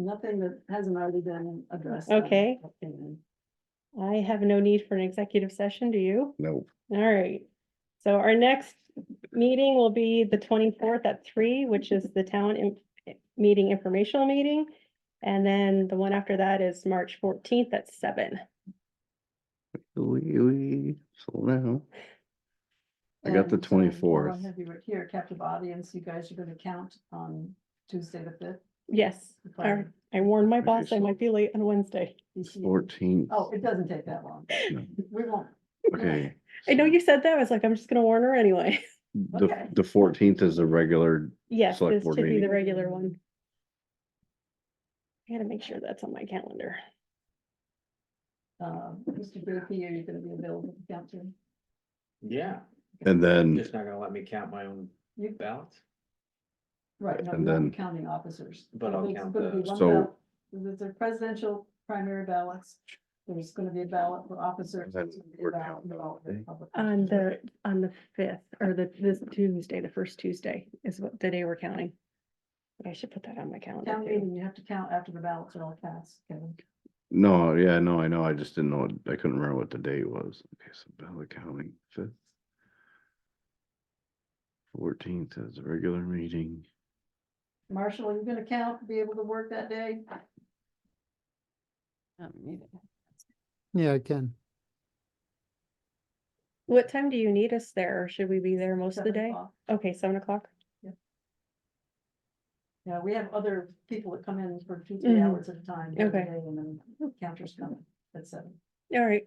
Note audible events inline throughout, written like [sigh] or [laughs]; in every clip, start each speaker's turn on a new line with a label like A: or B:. A: nothing that hasn't already been addressed.
B: Okay.
A: And
B: I have no need for an executive session, do you?
C: Nope.
B: All right. So our next meeting will be the twenty-fourth at three, which is the town in- meeting informational meeting. And then the one after that is March fourteenth at seven.
C: Wee, wee, Slow down. I got the
A: Um, so while I
C: 24th.
A: Have you right here, captive audience, you guys are gonna count on Tuesday the fifth.
B: Yes, all right. I warned my boss I might be late on Wednesday.
C: Fourteenth.
A: Oh, it doesn't take that long.
C: No.
A: [laughs] We won't,
C: Okay.
B: I know you said that. I was like, I'm just gonna warn her anyway. [laughs]
C: The,
A: Okay.
C: the fourteenth is a regular,
B: Yes,
C: Select
B: this
C: board
B: should be the
C: meeting.
B: regular one. I gotta make sure that's on my calendar.
A: uh, Mr. Burkey, are you gonna be available to count too?
D: Yeah,
C: and then,
D: just not gonna let me count my own
A: You-
D: ballots.
A: Right, no,
C: And
A: you're
C: then-
A: not counting officers.
D: But I'll
A: There's
D: count
A: gonna be
D: the-
A: one
C: So-
A: ballot- There's a presidential primary ballots, there's gonna be a ballot for officers.
C: Then
A: there's gonna be a
C: we're
A: ballot
C: counting
A: for all
C: that, eh?
A: the public
B: On
A: officers.
B: the, on the fifth, or the, this Tuesday, the first Tuesday is what, the day we're counting. But I should put that on my calendar
A: Town
B: too.
A: meeting, you have to count after the ballots are all cast, Kevin.
C: no, yeah, no, I know, I just didn't know, what- I couldn't remember what the date was. Okay, so ballot counting fifth. Fourteenth is a regular meeting.
A: Marshall, are you gonna count, be able to work that day?
E: Yeah, I can.
B: What time do you need us there? Or should we be there most of the
A: Seven
B: day?
A: o'clock.
B: Okay, seven o'clock.
A: Yeah, we have other people that come in for two, three
B: Mhm.
A: hours at a time. every
B: Okay.
A: day, And then counters come at seven.
B: All right.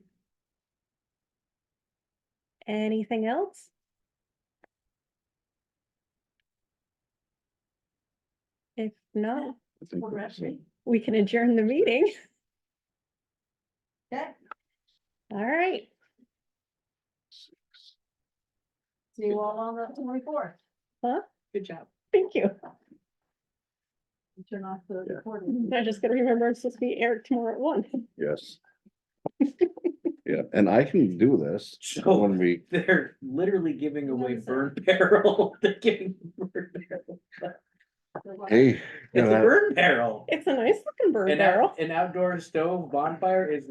B: Anything else? If not,
C: I think
A: Well,
C: we're
A: actually,
B: we can adjourn the meeting.
A: Okay,
B: All right.
C: six.
A: see you all on the twenty-fourth.
B: Huh?
A: Good job.
B: Thank you.
A: Turn off the
C: Yeah.
B: [laughs]
A: recording.
B: I just gotta remember it's supposed to be Eric tomorrow at one.
C: Yes.
A: [laughs]
C: Yeah, and I can do this
D: So-
C: when we,
D: [laughs] They're literally giving
A: What
D: away
A: is
D: burn barrel. [laughs] They're giving burn barrel.
C: hey.
D: It's a
C: uh,
D: burn barrel.
B: It's a nice looking bird
D: An
B: barrel.
D: out- an outdoor stove bonfire is